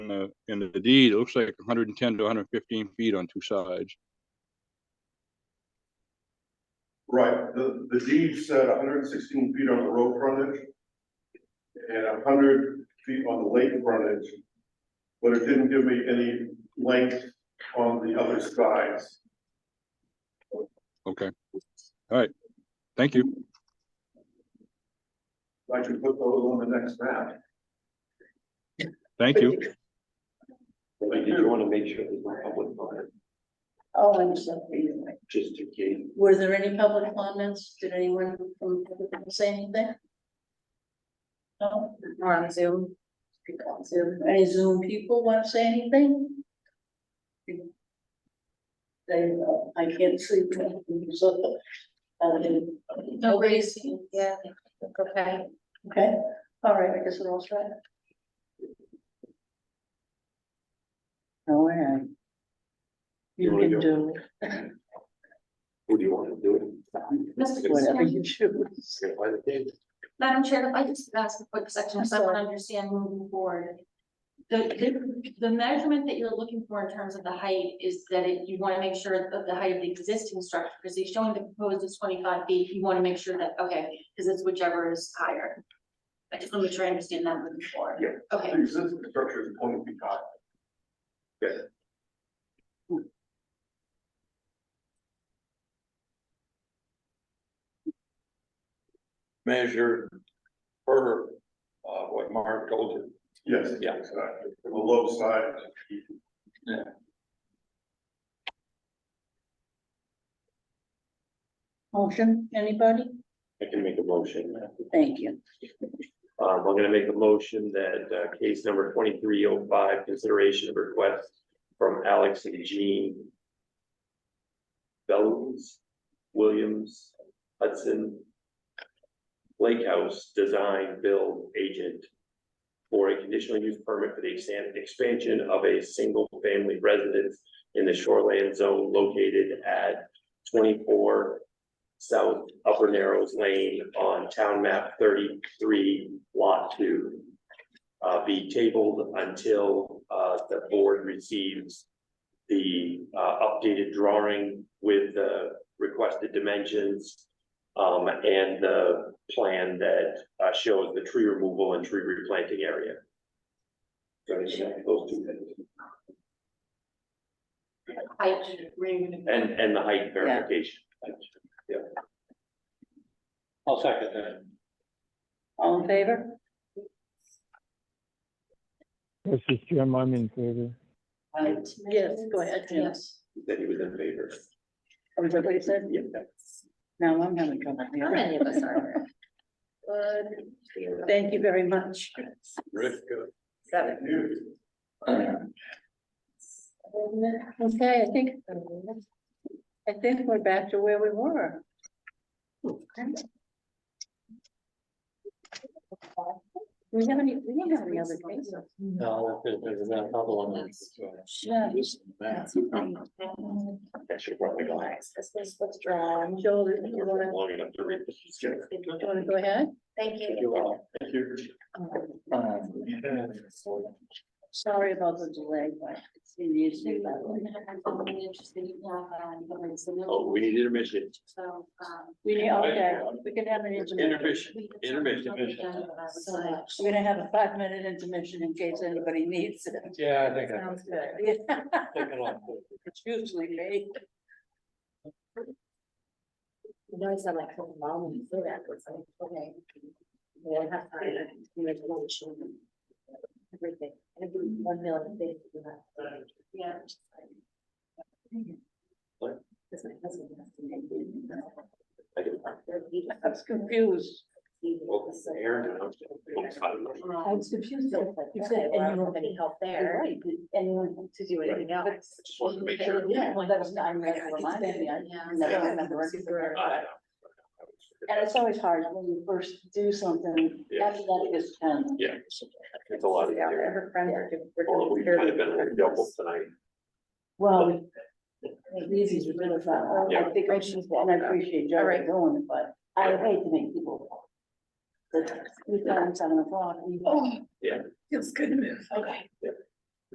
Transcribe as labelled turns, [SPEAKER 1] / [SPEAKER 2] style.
[SPEAKER 1] the, in the deed, it looks like hundred and ten to hundred and fifteen feet on two sides.
[SPEAKER 2] Right, the, the deed said hundred and sixteen feet on the road frontage. And hundred feet on the lake frontage. But it didn't give me any length on the other sides.
[SPEAKER 1] Okay. All right. Thank you.
[SPEAKER 2] I can put those on the next map.
[SPEAKER 1] Thank you.
[SPEAKER 3] I did want to make sure there's no public comment,
[SPEAKER 4] Oh, I'm sorry.
[SPEAKER 3] just to gain.
[SPEAKER 4] Were there any public comments? Did anyone from the public say anything? No, or on Zoom? People on Zoom. Any Zoom people want to say anything? They, uh, I can't sleep. so, um, Nobody's,
[SPEAKER 5] Yeah, okay.
[SPEAKER 4] okay, all right, I guess we're all set. All right.
[SPEAKER 3] You
[SPEAKER 4] You
[SPEAKER 3] wanna
[SPEAKER 4] can
[SPEAKER 3] go?
[SPEAKER 4] do
[SPEAKER 3] Who do you want to do it?
[SPEAKER 5] Mr.
[SPEAKER 4] whatever
[SPEAKER 5] Chairman,
[SPEAKER 4] you choose.
[SPEAKER 3] Say by the date.
[SPEAKER 5] Madam Chair, if I just ask a quick section,
[SPEAKER 4] I'm
[SPEAKER 5] because I want to
[SPEAKER 4] sorry.
[SPEAKER 5] understand moving forward. The, the, the measurement that you're looking for in terms of the height is that it- you want to make sure that the height of the existing structure, because they're showing the proposed is twenty-five feet, you want to make sure that, okay, because it's whichever is higher. I just want to make sure I understand that moving forward.
[SPEAKER 2] Yeah.
[SPEAKER 5] Okay.
[SPEAKER 2] The existing structure is twenty feet high.
[SPEAKER 6] measure per, uh, what Mark told you.
[SPEAKER 2] Yes.
[SPEAKER 6] Yeah.
[SPEAKER 2] Exactly, from the low side.
[SPEAKER 4] Motion, anybody?
[SPEAKER 3] I can make a motion.
[SPEAKER 4] Thank you.
[SPEAKER 3] Um, I'm gonna make a motion that, uh, case number twenty-three oh five, consideration of request from Alex and Jean. Bellows, Williams, Hudson. Lake House Design Build Agent. For a conditional use permit for the exan- expansion of a single-family residence in the shoreland zone located at twenty-four South Upper Narrows Lane on Town Map thirty-three, Lot two. Uh, be tabled until, uh, the board receives the, uh, updated drawing with the requested dimensions. Um, and the plan that, uh, shows the tree removal and tree replanting area. So, yeah, those two things.
[SPEAKER 5] Height, where you're gonna-
[SPEAKER 3] And, and the height verification.
[SPEAKER 6] I'll second that.
[SPEAKER 4] All in favor?
[SPEAKER 7] Mr. Jim, I'm in favor.
[SPEAKER 4] Yes, go ahead, Jim.
[SPEAKER 5] Yes.
[SPEAKER 3] That he was in favor.
[SPEAKER 4] Oh, is that what you said?
[SPEAKER 3] Yep.
[SPEAKER 4] Now I'm having trouble.
[SPEAKER 5] How
[SPEAKER 4] here.
[SPEAKER 5] many of us are
[SPEAKER 4] Good. Thank you very much.
[SPEAKER 6] Rick, uh,
[SPEAKER 4] Seven.
[SPEAKER 2] You.
[SPEAKER 4] Okay, I think, I think we're back to where we were. We have any, we don't have any other cases.
[SPEAKER 6] No, there's, there's another one.
[SPEAKER 4] Yeah.
[SPEAKER 5] there?
[SPEAKER 3] That should probably go.
[SPEAKER 5] This is withdrawn.
[SPEAKER 4] Joel, you wanna,
[SPEAKER 3] Long enough to read this.
[SPEAKER 4] you wanna go ahead?
[SPEAKER 5] Thank you.
[SPEAKER 2] Thank you.
[SPEAKER 3] Um,
[SPEAKER 4] Sorry about the delay, but it's been usually that way.
[SPEAKER 5] um,
[SPEAKER 3] Oh, we need intermission.
[SPEAKER 5] So, um.
[SPEAKER 4] We, need- okay, we can have an intermission.
[SPEAKER 6] Intermission, intermission.
[SPEAKER 4] We're gonna have a five minute intermission in case anybody needs it.
[SPEAKER 6] yeah, I think
[SPEAKER 4] Sounds good. Yeah,
[SPEAKER 6] I. Take it off.
[SPEAKER 4] It's usually me.
[SPEAKER 5] You guys are like, oh, mom, you feel that, it's like, okay. We don't have time, you know, to watch them. Everything, every one million things you have. Yeah.
[SPEAKER 3] What?
[SPEAKER 5] That's my husband, has to make it.
[SPEAKER 3] I can-
[SPEAKER 5] They're beautiful.
[SPEAKER 4] I was confused.
[SPEAKER 3] Well, Aaron, I'm-
[SPEAKER 5] I was confused. though, like,
[SPEAKER 4] You
[SPEAKER 5] you
[SPEAKER 4] said,
[SPEAKER 5] said,
[SPEAKER 4] and
[SPEAKER 5] and
[SPEAKER 4] you
[SPEAKER 5] you
[SPEAKER 4] were-
[SPEAKER 5] have any help there,
[SPEAKER 4] right.
[SPEAKER 5] anyone to do
[SPEAKER 3] Right.
[SPEAKER 5] anything else.
[SPEAKER 3] just wanted to make sure.
[SPEAKER 4] Yeah, well, that was, I reminded me, I never remember.
[SPEAKER 3] I-
[SPEAKER 4] And it's always hard when you first do something,
[SPEAKER 3] Yeah.
[SPEAKER 4] after that it gets done.
[SPEAKER 3] Yeah. It's a lot of.
[SPEAKER 5] Yeah, her friends are doing- we're
[SPEAKER 3] Or we
[SPEAKER 5] doing
[SPEAKER 3] might have been like double tonight.
[SPEAKER 4] Well, these is really fun. I- I
[SPEAKER 3] Yeah.
[SPEAKER 4] think I should, and I appreciate
[SPEAKER 5] All
[SPEAKER 4] Jerry
[SPEAKER 5] right.
[SPEAKER 4] going, but I hate to make people. But we got seven o'clock. we-
[SPEAKER 5] Oh.
[SPEAKER 3] Yeah.
[SPEAKER 5] Feels good to move. Okay.
[SPEAKER 3] Yeah.